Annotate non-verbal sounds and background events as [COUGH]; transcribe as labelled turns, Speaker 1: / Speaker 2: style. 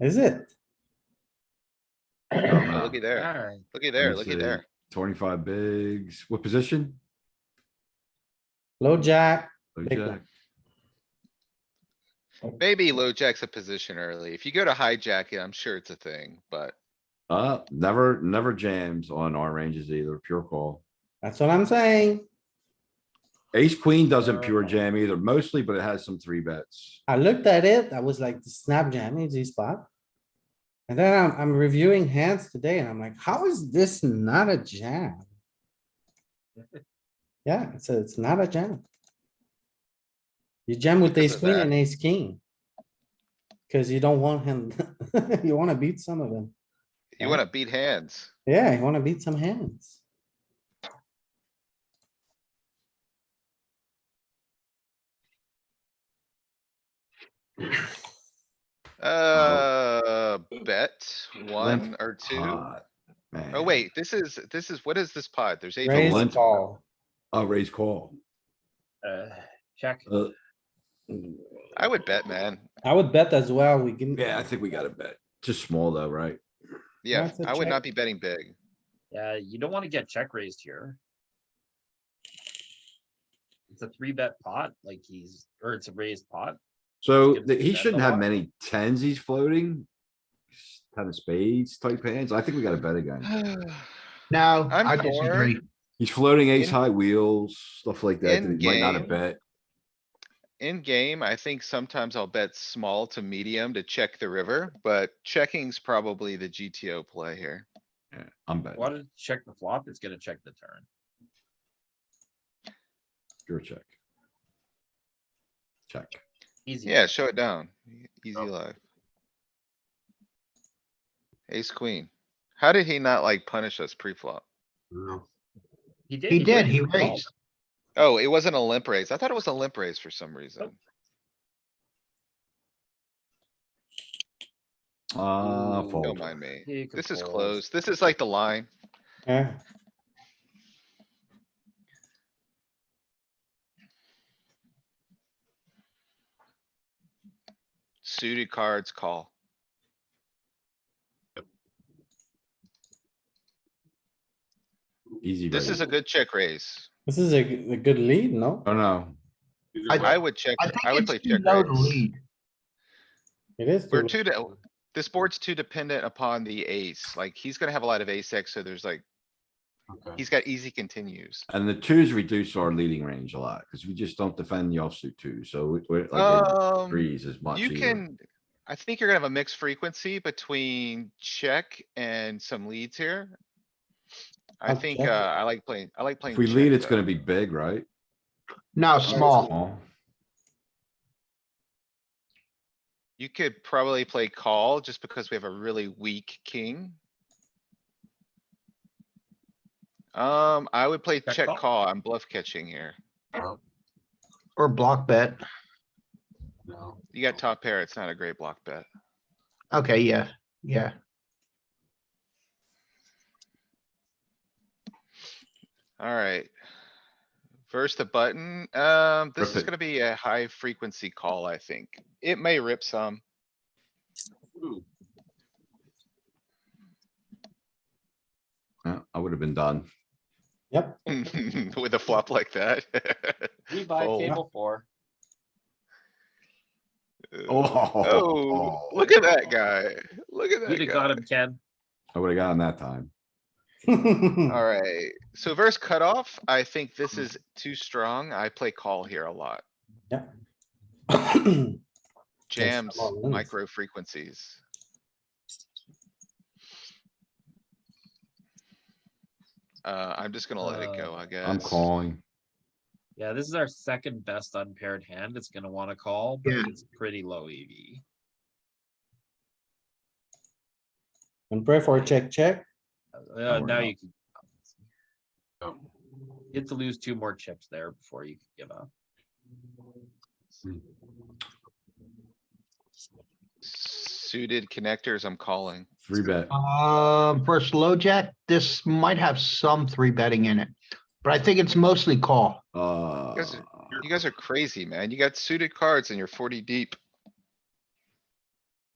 Speaker 1: Is it?
Speaker 2: Oh,
Speaker 3: Don't
Speaker 2: Looky
Speaker 3: know.
Speaker 2: there,
Speaker 4: Alright,
Speaker 2: looky there,
Speaker 3: me
Speaker 2: looky
Speaker 3: see.
Speaker 2: there.
Speaker 3: Twenty-five bigs, what position?
Speaker 1: Low jack,
Speaker 3: Low
Speaker 1: Big
Speaker 3: jack.
Speaker 2: Maybe low jack's a position early. If you go to hijack it, I'm sure it's a thing, but
Speaker 3: Uh, never, never jams on our ranges either, pure call.
Speaker 1: that's what I'm saying.
Speaker 3: Ace queen doesn't pure
Speaker 2: Uh.
Speaker 4: Oh.
Speaker 3: jam either, mostly, but it has some three bets.
Speaker 1: I looked at it, I was like, snap jam, easy spot. And then I'm, I'm reviewing hands today and I'm like, how is this not a jam? Yeah, it's, a- it's not a jam. You jam with
Speaker 2: Because
Speaker 1: ace
Speaker 2: of
Speaker 1: queen
Speaker 2: that.
Speaker 1: and ace king. Cause you don't want him, [LAUGHS] you wanna beat some of them.
Speaker 2: you
Speaker 1: Yeah.
Speaker 2: wanna beat hands.
Speaker 1: Yeah, you wanna beat some hands.
Speaker 2: Uh, bet one or two.
Speaker 3: Pot, Man.
Speaker 2: Oh, wait, this is, this is, what is this pod? There's eight.
Speaker 1: Raise
Speaker 3: limp.
Speaker 1: call.
Speaker 3: Oh, raise call.
Speaker 4: uh, check.
Speaker 3: Uh,
Speaker 2: I would bet, man.
Speaker 1: I would bet as well, we can.
Speaker 3: Yeah, I think we gotta bet. Just small though, right?
Speaker 2: Yeah,
Speaker 1: That's a
Speaker 2: I would
Speaker 1: check.
Speaker 2: not be betting big. [SIGHS]
Speaker 4: Yeah, Uh, you don't wanna get check raised here. It's a three bet pot, like he's, or it's a raised pot.
Speaker 3: So
Speaker 4: give
Speaker 3: th-
Speaker 4: the
Speaker 3: he
Speaker 4: bet a
Speaker 3: shouldn't have
Speaker 4: lot.
Speaker 3: many tens he's floating. Ten of spades type hands. I think we gotta bet again.
Speaker 5: No,
Speaker 2: I'm
Speaker 5: I
Speaker 2: for
Speaker 5: disagree.
Speaker 3: He's floating ace
Speaker 2: In-
Speaker 3: high wheels, stuff like that.
Speaker 2: in
Speaker 3: that he Might not have
Speaker 2: game.
Speaker 3: bet.
Speaker 2: In game, I think sometimes I'll bet small to medium to check the river, but checking's probably the GTO play here.
Speaker 3: Yeah, I'm betting.
Speaker 4: Wanna check the flop, it's gonna check the turn.
Speaker 3: Your check. Check.
Speaker 4: Easy.
Speaker 2: Yeah, show it down. E- Easy
Speaker 4: Oh.
Speaker 2: life. Ace queen. How did he not like punish us pre-flop?
Speaker 5: No.
Speaker 4: He
Speaker 5: He did, he
Speaker 4: called.
Speaker 5: raised.
Speaker 2: Oh, it wasn't a limp raise. I thought it was a limp raise for some reason.
Speaker 3: Uh,
Speaker 2: Don't
Speaker 4: Ooh.
Speaker 3: Ah, fold.
Speaker 2: mind me.
Speaker 4: He could
Speaker 2: This is
Speaker 4: fold.
Speaker 2: close. This is like the line.
Speaker 1: Yeah.
Speaker 2: Suited cards call.
Speaker 3: Easy.
Speaker 2: This is a good check raise.
Speaker 1: This is a, g- a good lead, no?
Speaker 3: Oh, no.
Speaker 2: I would check,
Speaker 5: I think
Speaker 2: I would
Speaker 5: it's
Speaker 2: play
Speaker 5: too
Speaker 2: check
Speaker 5: low to
Speaker 2: raise.
Speaker 5: lead.
Speaker 1: It is.
Speaker 2: We're
Speaker 1: too-
Speaker 2: too, de- this board's too dependent upon the ace. Like, he's gonna have a lot of ace X, so there's like, he's got easy continues.
Speaker 3: And the twos reduce our leading range a lot because we just don't defend the offsuit two. So we- we're like in
Speaker 2: Um.
Speaker 3: threes as much.
Speaker 2: You
Speaker 3: either.
Speaker 2: can, I think you're gonna have a mixed frequency between check and some leads here. I
Speaker 1: I'll
Speaker 2: think, uh,
Speaker 1: check it.
Speaker 2: I like playing, I like playing.
Speaker 3: If we
Speaker 2: check,
Speaker 3: lead, it's
Speaker 2: though.
Speaker 3: gonna be big, right?
Speaker 5: No, small.
Speaker 3: Small.
Speaker 2: You could probably play call just because we have a really weak king. Um, I would play
Speaker 4: Check
Speaker 2: check
Speaker 4: call?
Speaker 2: call. I'm bluff catching here.
Speaker 5: Or block bet.
Speaker 2: You
Speaker 4: Oh.
Speaker 2: got top pair. It's not a great block bet.
Speaker 5: Okay, yeah, yeah.
Speaker 2: Alright. First the button, um, this
Speaker 3: Rip
Speaker 2: is
Speaker 3: it.
Speaker 2: gonna be a high frequency call, I think. It may rip some.
Speaker 3: Yeah, I would have been done.
Speaker 1: Yep,
Speaker 2: [LAUGHS] With a flop like that. [LAUGHS]
Speaker 4: We buy
Speaker 2: Fold.
Speaker 4: table four.
Speaker 2: Uh,
Speaker 3: Oh,
Speaker 2: [LAUGHS] Oh, look at that guy. Look at
Speaker 4: You'd
Speaker 2: that
Speaker 4: have got
Speaker 2: guy.
Speaker 4: him, Ken.
Speaker 3: I would have gotten that time.
Speaker 2: Alright, so verse cutoff, I think
Speaker 3: Hmm.
Speaker 2: this is too strong. I play call here a lot. Jams,
Speaker 3: Oh,
Speaker 1: all it is.
Speaker 2: micro frequencies. Uh, I'm just gonna let it
Speaker 4: Uh,
Speaker 2: go, I guess.
Speaker 3: I'm calling.
Speaker 4: Yeah, this is our second best unpaired hand. It's gonna wanna call, but
Speaker 5: Yeah.
Speaker 4: it's pretty low E EV.
Speaker 1: [LAUGHS] And pray for a check, check.
Speaker 4: Uh,
Speaker 3: we're
Speaker 4: now
Speaker 3: out.
Speaker 4: you can. You have to lose two more chips there before you can give up.
Speaker 2: Suited connectors, I'm calling.
Speaker 3: Three bet.
Speaker 5: Um, versus low jack, this might have some three betting in it, but I think it's mostly call.
Speaker 3: Uh,
Speaker 2: guys are- You guys are crazy, man. You got suited cards and you're forty deep.